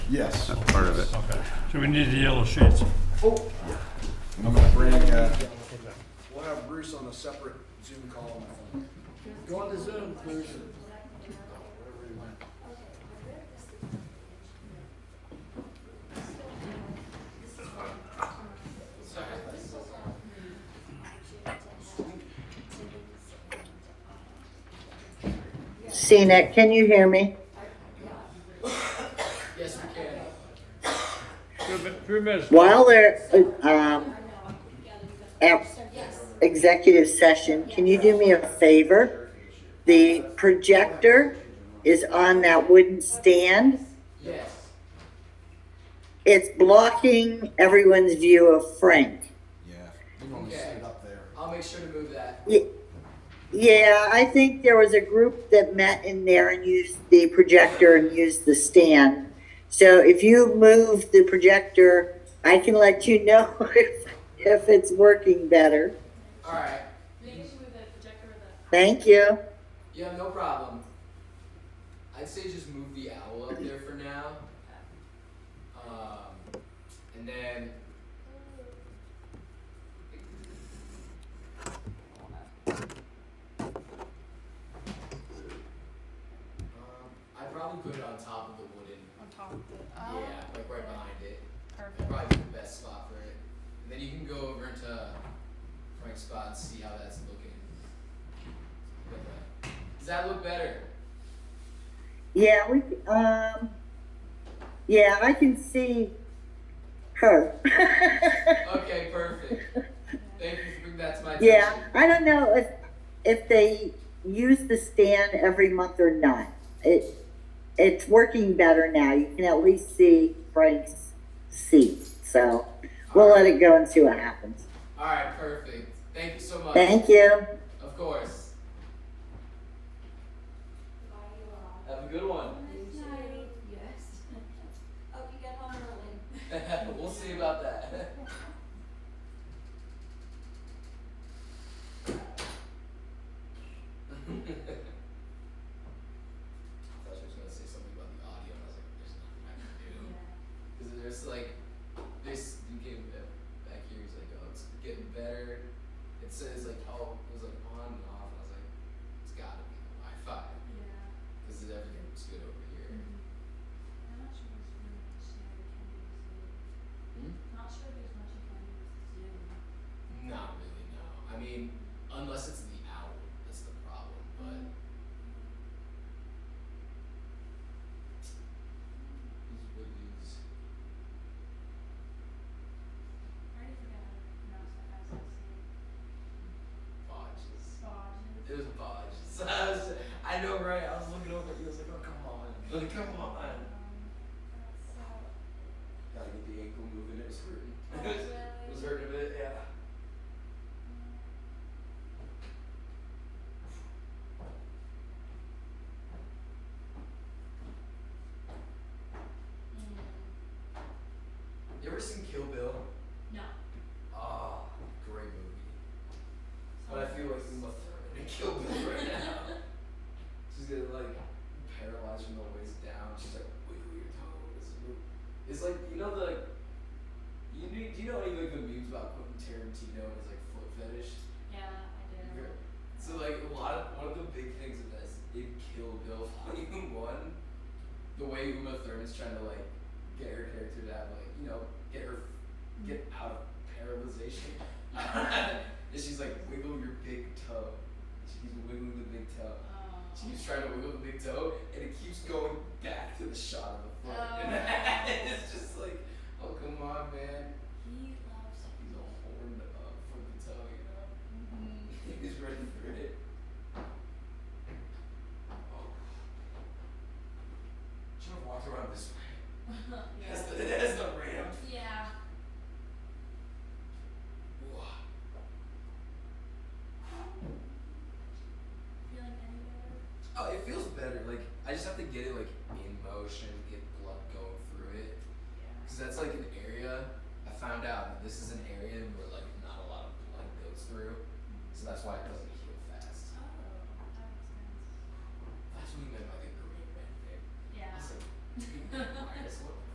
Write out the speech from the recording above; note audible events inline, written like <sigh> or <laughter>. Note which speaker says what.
Speaker 1: Yes.
Speaker 2: That's part of it.
Speaker 3: Okay, so we need the yellow sheets.
Speaker 1: Oh, I'm gonna bring, uh, we'll have Bruce on a separate Zoom call. Go on to Zoom, Bruce.
Speaker 4: CNET, can you hear me?
Speaker 3: Two mi- Three minutes.
Speaker 4: While they're, uh, um, at executive session, can you do me a favor? The projector is on that wooden stand.
Speaker 5: Yes.
Speaker 4: It's blocking everyone's view of Frank.
Speaker 1: Yeah, we normally sit it up there.
Speaker 5: I'll make sure to move that.
Speaker 4: Ye- Yeah, I think there was a group that met in there and used the projector and used the stand. So if you move the projector, I can let you <laughs> know if, if it's working better.
Speaker 5: All right.
Speaker 6: Maybe move the projector or the.
Speaker 4: Thank you.
Speaker 5: Yeah, no problem. I'd say just move the owl up there for now. Um, and then. Um, I'd probably put it on top of the wooden.
Speaker 6: On top of the.
Speaker 7: Oh.
Speaker 5: Yeah, like right behind it. That'd
Speaker 6: Perfect.
Speaker 5: probably be the best spot for it. And then you can go over into Frank's spot and see how that's looking. Like that. Does that look better?
Speaker 4: Yeah, we, um, yeah, I can see her. <laughs>
Speaker 5: Okay, perfect. Thank you for bringing that to my attention.
Speaker 4: yeah, I don't know if, if they use the stand every month or not. It, it's working better now. You can at least see Frank's seat. So we'll let it go and see what happens.
Speaker 5: All right, perfect. Thank you so much.
Speaker 4: Thank you.
Speaker 5: Of course. Have a good one. <laughs>
Speaker 7: Yes. Hope you get home early.
Speaker 5: we'll see about that. <laughs> I thought she was gonna say something about the audio, and I was like, there's nothing I can do. Cause there's like, this, you came back here, he's like, oh, it's getting better. It says like, oh, it was like on and off, and I was like, it's gotta be the Wi-Fi,
Speaker 7: Yeah.
Speaker 5: cause everything looks good over here.
Speaker 7: I'm not sure there's much you can do with Zoom. Not sure there's much you can do with Zoom.
Speaker 5: Not really, no. I mean, unless it's the owl, that's the problem. But These Woodleys.
Speaker 7: I already forgot how to pronounce that as I say it.
Speaker 5: bodges.
Speaker 7: Bodges.
Speaker 5: It was <laughs> bodges. I, was, I know, right? I was looking over. He was like, "Oh, come on, like, come on."
Speaker 7: Um,
Speaker 5: Gotta get the ankle moving. It was hurting.
Speaker 7: that's,
Speaker 5: <laughs> it
Speaker 7: uh,
Speaker 5: was hurting a bit. Yeah. You ever seen Kill Bill?
Speaker 7: No.
Speaker 5: Ah, great movie. But I
Speaker 7: sorry.
Speaker 5: feel like we must <laughs> have Kill
Speaker 7: <laughs>
Speaker 5: Bill right now. She's gonna like paralyze from the waist down. She's like wiggle your toes. It's like you know the you do, do you know any like the memes about Quentin Tarantino and his like foot fetish?
Speaker 7: Yeah, I do.
Speaker 5: So like a lot of one of the big things of this in Kill Bill <laughs> Volume One, the way Uma Thurman's trying to like get her character to have like you know get her get out of paralyzation, <laughs> and she's like wiggle your big toe. She keeps wiggling the big toe. She keeps trying to wiggle the big toe, and it keeps going back to the shot of the foot. <laughs> And it's just like, oh come on, man.
Speaker 7: He loves it.
Speaker 5: He's all horned up from the toe, you know. He's ready for it. Oh. Should have walked around this way.
Speaker 7: <laughs>
Speaker 5: That's the, that's the ramp.
Speaker 7: Yeah.
Speaker 5: Whoa.
Speaker 7: Feeling any better?
Speaker 5: Oh, it feels better. Like I just have to get it like in motion, get
Speaker 7: Oh,
Speaker 5: <laughs>